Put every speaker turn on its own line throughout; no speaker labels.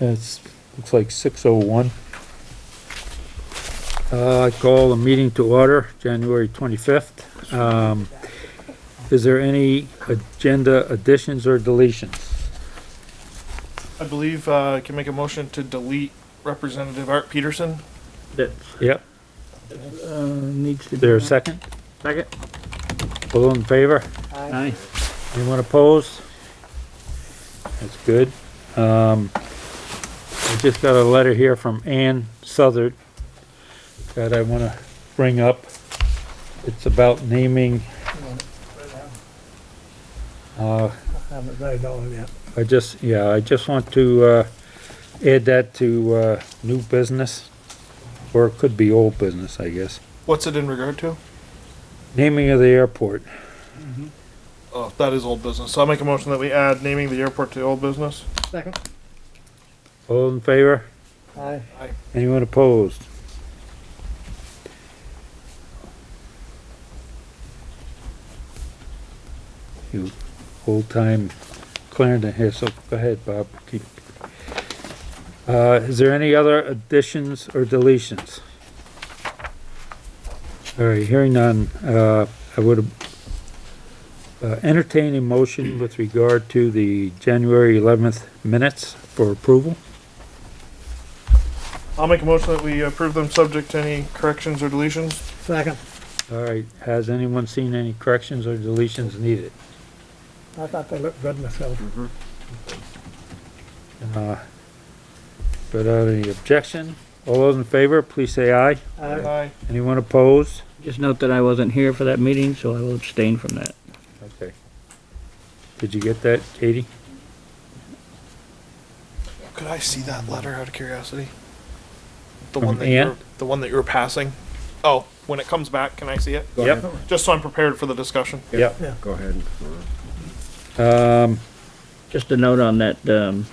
It's, looks like six oh one. Uh, I call the meeting to order, January twenty-fifth. Um, is there any agenda additions or deletions?
I believe uh, I can make a motion to delete Representative Art Peterson.
That,
Yep,
uh, needs to be.
is there a second?
Second?
All in favor?
Aye.
Anyone opposed? That's good. Um, I just got a letter here from Ann Southard that I wanna bring up. It's about naming, uh,
Haven't read all of that.
I just, yeah, I just want to, uh, add that to, uh, new business. Or it could be old business, I guess.
What's it in regard to?
Naming of the airport.
Oh, that is old business. So I'll make a motion that we add naming the airport to old business.
Second.
All in favor?
Aye.
Anyone opposed? You old-time Clarendon here, so go ahead, Bob. Keep- Uh, is there any other additions or deletions? All right, hearing none, uh, I would uh, entertain a motion with regard to the January eleventh minutes for approval.
I'll make a motion that we approve them subject to any corrections or deletions.
Second.
All right, has anyone seen any corrections or deletions needed?
I thought they looked good myself.
Uh, Without any objection, all those in favor, please say aye.
Aye.
Aye.
Anyone opposed?
Just note that I wasn't here for that meeting, so I will abstain from that.
Okay. Did you get that, Katie?
Could I see that letter out of curiosity? The
From
one that you're,
Ann?
the one that you were passing? Oh, when it comes back, can I see it?
Yep.
Just so I'm prepared for the discussion.
Yep.
Yeah.
Go ahead.
Um,
Just a note on that, um,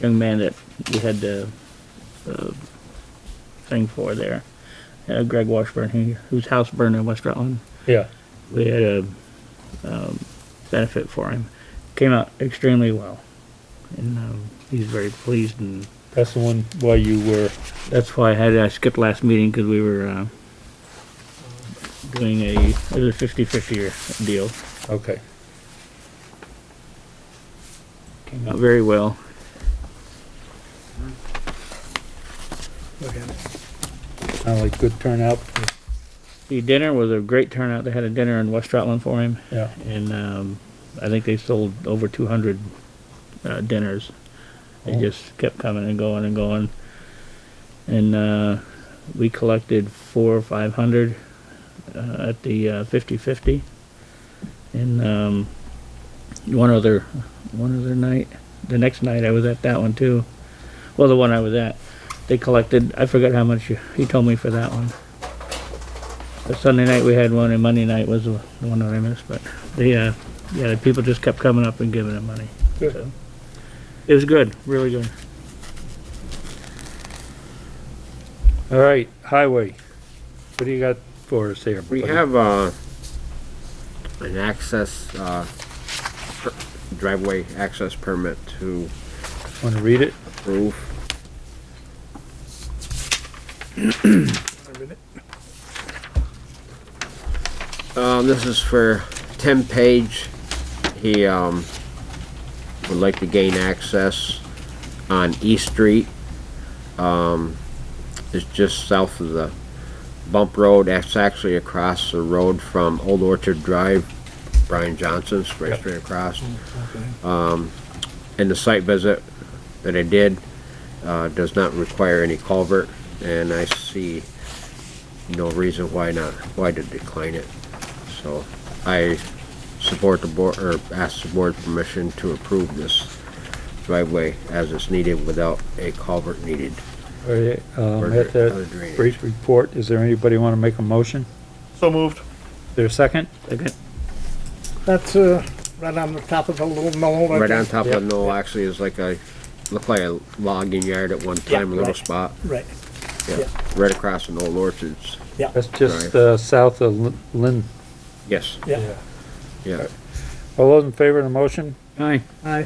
young man that we had the, uh, thing for there. Uh, Greg Washburn, he, whose house burned in West Rutland.
yeah,
We had a, um, benefit for him. Came out extremely well. And, um, he's very pleased and
that's the one why you were,
That's why I had, I skipped last meeting because we were, uh, doing a, it was a fifty-fifty deal.
okay.
Came out very well.
Look at it.
Sound like good turnout.
The dinner was a great turnout. They had a dinner in West Rutland for him
Yeah,
and, um, I think they sold over two hundred, uh, dinners. They
Oh.
just kept coming and going and going. And, uh, we collected four or five hundred, uh, at the, uh, fifty-fifty. And, um, one other, one other night, the next night I was at that one too. Well, the one I was at, they collected, I forgot how much you- he told me for that one. But Sunday night we had one and Monday night was the one that I missed, but they, uh, yeah, the people just kept coming up and giving them money.
Good.
So, It was good, really good.
all right, highway. What do you got for us here?
We
buddy?
have, uh, an access, uh, per- driveway access permit to
Wanna read it?
approve. Um, this is for Tim Page. He, um, would like to gain access on East Street. Um, it's just south of the bump road. That's actually across the road from Old Orchard Drive, Brian Johnson's, right straight across. Um, and the site visit that I did, uh, does not require any culvert, and I see no reason why not, why to decline it. So I support the board, or ask the board permission to approve this driveway as it's needed without a culvert needed.
All right, um,
Or
at
other
that
drainage.
brief report, is there anybody wanna make a motion?
So moved.
Is there a second?
Second.
That's, uh, right on the top of the little knoll. I
Right on
think.
top of
Yep.
the knoll actually is like a, looked like a logging yard at one time, a little
right.
spot,
Right,
yeah,
Yep.
right across from Old Orchard's.
That's just, uh, south of Lin- Lynn.
Yes,
yeah.
yeah.
All those in favor of the motion?
Aye.
Aye.